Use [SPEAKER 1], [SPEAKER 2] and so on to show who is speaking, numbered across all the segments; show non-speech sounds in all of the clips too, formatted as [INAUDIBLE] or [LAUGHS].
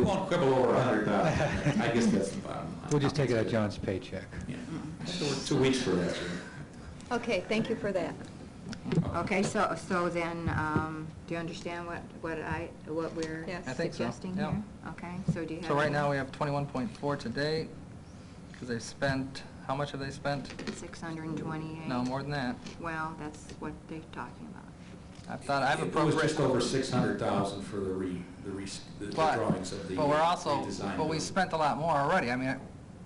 [SPEAKER 1] won't quibble over a hundred thousand. I guess that's the bottom line.
[SPEAKER 2] We'll just take it out of John's paycheck.
[SPEAKER 1] Yeah. So we're two weeks for that.
[SPEAKER 3] Okay, thank you for that.
[SPEAKER 4] Okay, so, so then, um, do you understand what, what I, what we're
[SPEAKER 3] Yes.
[SPEAKER 5] I think so,
[SPEAKER 4] suggesting
[SPEAKER 5] yeah.
[SPEAKER 4] here? Okay, so do you have?
[SPEAKER 5] So right
[SPEAKER 4] any-
[SPEAKER 5] now, we have 21.4 today, because they spent, how much have they spent?
[SPEAKER 4] 628?
[SPEAKER 5] No, more than that.
[SPEAKER 4] Well, that's what they're talking about.
[SPEAKER 5] I thought, I've
[SPEAKER 1] It was
[SPEAKER 5] appropriated.
[SPEAKER 1] just over six hundred thousand for the re, the re, the the
[SPEAKER 5] But,
[SPEAKER 1] drawings of the.
[SPEAKER 5] but we're also,
[SPEAKER 1] redesign
[SPEAKER 5] but we
[SPEAKER 1] building.
[SPEAKER 5] spent a lot more already. I mean, I-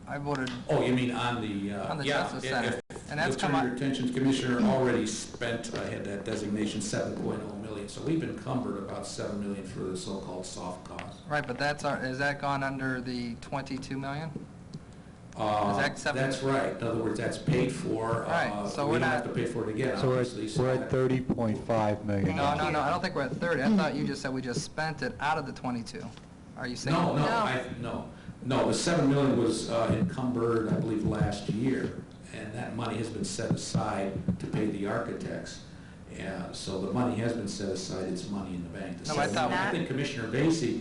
[SPEAKER 5] I voted,
[SPEAKER 1] Oh, you mean on the, uh,
[SPEAKER 5] On the
[SPEAKER 1] yeah,
[SPEAKER 5] Justice
[SPEAKER 1] if-
[SPEAKER 5] Center.
[SPEAKER 1] if
[SPEAKER 5] And that's
[SPEAKER 1] the
[SPEAKER 5] come
[SPEAKER 1] Turn
[SPEAKER 5] up-
[SPEAKER 1] Your Attention Commissioner already spent, I had that designation, seven point oh million. So we've encumbered about seven million for the so-called soft costs.
[SPEAKER 5] right, but that's, our is that gone under the 22 million?
[SPEAKER 1] Uh,
[SPEAKER 5] that seven-
[SPEAKER 1] That's right. In other words, that's paid for. uh,
[SPEAKER 5] Right, so we're
[SPEAKER 1] We don't have
[SPEAKER 5] not-
[SPEAKER 1] to pay for it again,
[SPEAKER 2] So we're
[SPEAKER 1] obviously.
[SPEAKER 2] at, we're at thirty point five million.
[SPEAKER 5] No,
[SPEAKER 4] Thank
[SPEAKER 5] no, no,
[SPEAKER 4] you.
[SPEAKER 5] I don't think we're at 30. I thought you just said we just spent it out of the 22. Are you saying?
[SPEAKER 1] No, no,
[SPEAKER 3] No.
[SPEAKER 1] I, no, no, the seven million was uh, encumbered, I believe, last year, and that money has been set aside to pay the architects. And so the money has been set aside, it's money in the bank. The
[SPEAKER 5] No, I
[SPEAKER 1] seven-
[SPEAKER 5] thought-
[SPEAKER 1] I think Commissioner Vacy,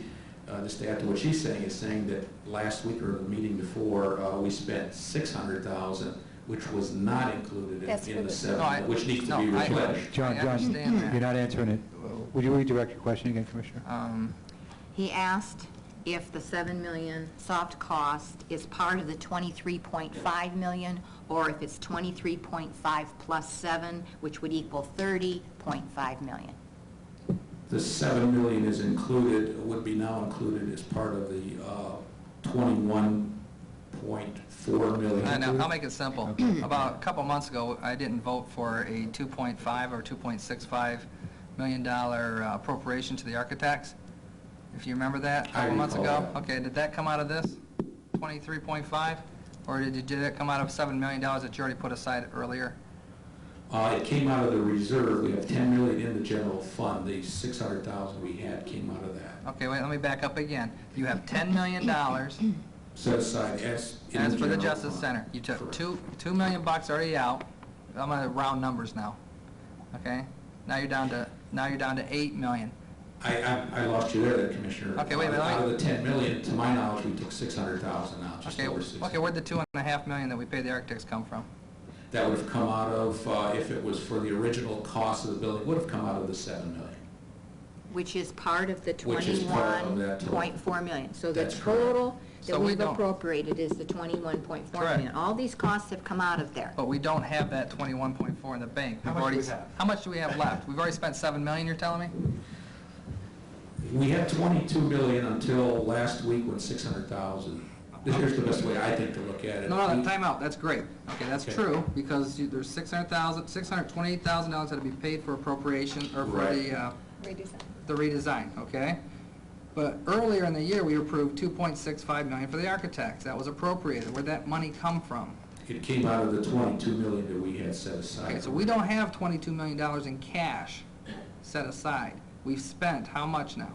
[SPEAKER 1] uh, just to add to what she's saying, is saying that last week or the meeting before, uh, we spent six hundred thousand, which was not included
[SPEAKER 3] That's
[SPEAKER 1] in-
[SPEAKER 3] for
[SPEAKER 1] in the
[SPEAKER 3] the-
[SPEAKER 1] seven,
[SPEAKER 5] No, I-
[SPEAKER 1] which needs to
[SPEAKER 5] no,
[SPEAKER 1] be
[SPEAKER 5] I-
[SPEAKER 1] replenished.
[SPEAKER 2] John,
[SPEAKER 5] I
[SPEAKER 2] John,
[SPEAKER 5] understand that.
[SPEAKER 2] you're not answering it. Would you redirect your question again, Commissioner?
[SPEAKER 5] Um,
[SPEAKER 4] He asked if the 7 million soft cost is part of the 23.5 million, or if it's 23.5 plus 7, which would equal 30.5 million.
[SPEAKER 1] The 7 million is included, would be now included as part of the uh, 21.4 million.
[SPEAKER 5] I know, Uh, I'll make it simple. [CLEARS THROAT] About a couple months ago, I didn't vote for a 2.5 or 2.65 million dollar uh, appropriation to the architects. If you remember that, a
[SPEAKER 1] I
[SPEAKER 5] couple months
[SPEAKER 1] recall
[SPEAKER 5] ago?
[SPEAKER 1] that.
[SPEAKER 5] Okay, did that come out of this, 23.5? Or did it- did that come out of $7 million that you already put aside earlier?
[SPEAKER 1] Uh, It came out of the reserve, we have 10 million in the general fund, the 600,000 we had came out of that,
[SPEAKER 5] Okay, wait, let me back up again. You have $10 million
[SPEAKER 1] [CLEARS THROAT] set aside as. in
[SPEAKER 5] As for the
[SPEAKER 1] general uh,
[SPEAKER 5] Justice
[SPEAKER 1] fund.
[SPEAKER 5] Center, you took
[SPEAKER 1] Correct.
[SPEAKER 5] two, two million bucks already out, I'm gonna round numbers now, okay? Now you're down to, now you're down to eight million.
[SPEAKER 1] I, I- I lost you there, Commissioner. Uh,
[SPEAKER 5] Okay, wait a minute, let me-
[SPEAKER 1] Out of the 10 million, to my knowledge, we took 600,000 out, just
[SPEAKER 5] Okay,
[SPEAKER 1] over 600.
[SPEAKER 5] okay, where'd the two and a half million that we paid the architects come from?
[SPEAKER 1] That would have come out of, uh, if it was for the original cost of the building, would have come out of the 7 million.
[SPEAKER 4] Which is part of the
[SPEAKER 1] Which is part of that total.
[SPEAKER 4] 21.4 million. So the
[SPEAKER 1] That's correct.
[SPEAKER 4] total
[SPEAKER 5] So
[SPEAKER 4] that
[SPEAKER 5] we
[SPEAKER 4] we've
[SPEAKER 5] don't-
[SPEAKER 4] appropriated is the 21.4
[SPEAKER 5] Correct.
[SPEAKER 4] million. All these costs have come out of there.
[SPEAKER 5] But we don't have that twenty-one point four in the bank. We've
[SPEAKER 2] much do
[SPEAKER 5] already-
[SPEAKER 2] we have?
[SPEAKER 5] How much do we have left? We've already spent seven million, you're telling me?
[SPEAKER 1] We had 22 million until last week when 600,000. This is the best way I think to look at it.
[SPEAKER 5] No, no, time out, that's great. Okay, that's
[SPEAKER 1] Okay.
[SPEAKER 5] true, because you- there's six hundred thousand, six hundred twenty-eight thousand dollars that'll be paid for appropriation, or for
[SPEAKER 1] Right.
[SPEAKER 5] the, uh,
[SPEAKER 3] Redesign.
[SPEAKER 5] the redesign, okay? But earlier in the year, we approved 2.65 million for the architects. That was appropriated. Where'd that money come from?
[SPEAKER 1] It came out of the 22 million that we had set aside.
[SPEAKER 5] Okay, so we don't have 22 million dollars in cash set aside. We've spent how much now?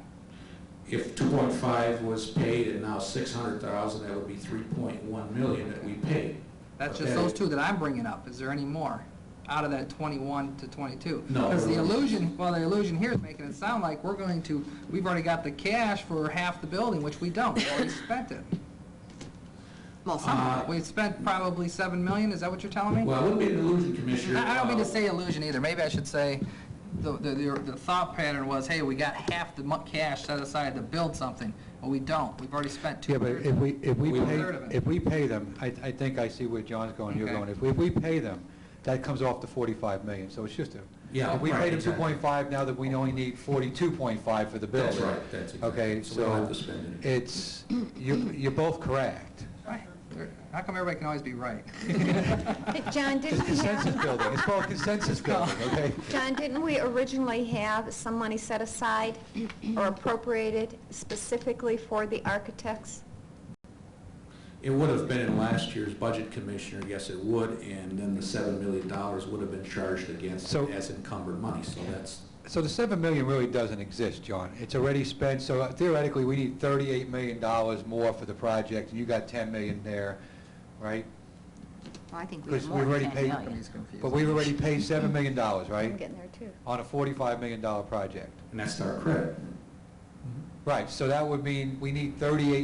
[SPEAKER 1] If 2.5 was paid and now 600,000, that would be 3.1 million that we paid.
[SPEAKER 5] That's
[SPEAKER 1] But
[SPEAKER 5] just
[SPEAKER 1] that-
[SPEAKER 5] those two that I'm bringing up. Is there any more out of that 21 to 22?
[SPEAKER 1] No.
[SPEAKER 5] Because the illusion, well, the illusion here is making it sound like we're going to, we've already got the cash for half the building, which we don't. We've already spent it.
[SPEAKER 4] Well, some of it.
[SPEAKER 1] Uh,
[SPEAKER 5] We've spent probably 7 million, is that what you're telling me?
[SPEAKER 1] Well, it wouldn't be an illusion, Commissioner.
[SPEAKER 5] I I don't mean to
[SPEAKER 1] Uh,
[SPEAKER 5] say illusion either, maybe I should say, the, the, the the thought pattern was, hey, we got half the mon- cash set aside to build something, but we don't, we've already spent two
[SPEAKER 2] Yeah, but
[SPEAKER 5] thirds.
[SPEAKER 2] if we, if we
[SPEAKER 1] We-
[SPEAKER 2] pay,
[SPEAKER 5] Third of it.
[SPEAKER 2] if we pay them, I, I think I see where John's going, you're
[SPEAKER 5] Okay.
[SPEAKER 2] going. If we, if we pay them, that comes off the forty-five million, so it's just a.
[SPEAKER 1] Yeah,
[SPEAKER 2] If we
[SPEAKER 1] right,
[SPEAKER 2] paid them two
[SPEAKER 1] exactly.
[SPEAKER 2] point five, now that we only need forty-two point five for the
[SPEAKER 1] That's
[SPEAKER 2] building.
[SPEAKER 1] right, that's exactly.
[SPEAKER 2] Okay,
[SPEAKER 1] So we don't have
[SPEAKER 2] so
[SPEAKER 1] to spend it.
[SPEAKER 2] it's, you, you're both correct.
[SPEAKER 5] Right. How come everybody can always be right?
[SPEAKER 2] [LAUGHS]
[SPEAKER 3] John, didn't we
[SPEAKER 2] Consensus
[SPEAKER 3] have,
[SPEAKER 2] building, it's called
[SPEAKER 3] [LAUGHS]
[SPEAKER 2] consensus building, okay?
[SPEAKER 3] John, didn't we originally have some money set aside or appropriated specifically for the architects?
[SPEAKER 1] It would have been in last year's budget, Commissioner, yes, it would, and then the $7 million would have been charged against
[SPEAKER 2] So-
[SPEAKER 1] it as encumbered money, so that's,
[SPEAKER 2] So the 7 million really doesn't exist, John. It's already spent, so theoretically, we need 38 million dollars more for the project, and you got 10 million there, right?
[SPEAKER 4] Well, I think we have
[SPEAKER 2] Because
[SPEAKER 4] more
[SPEAKER 2] we've
[SPEAKER 4] than
[SPEAKER 2] already
[SPEAKER 4] 10
[SPEAKER 2] paid-
[SPEAKER 4] million.
[SPEAKER 2] But we've already paid 7 million dollars,
[SPEAKER 3] I'm
[SPEAKER 2] right?
[SPEAKER 3] getting there too.
[SPEAKER 2] On a 45 million dollar project.
[SPEAKER 1] and that's to our credit.
[SPEAKER 2] Right, so that would mean we need 38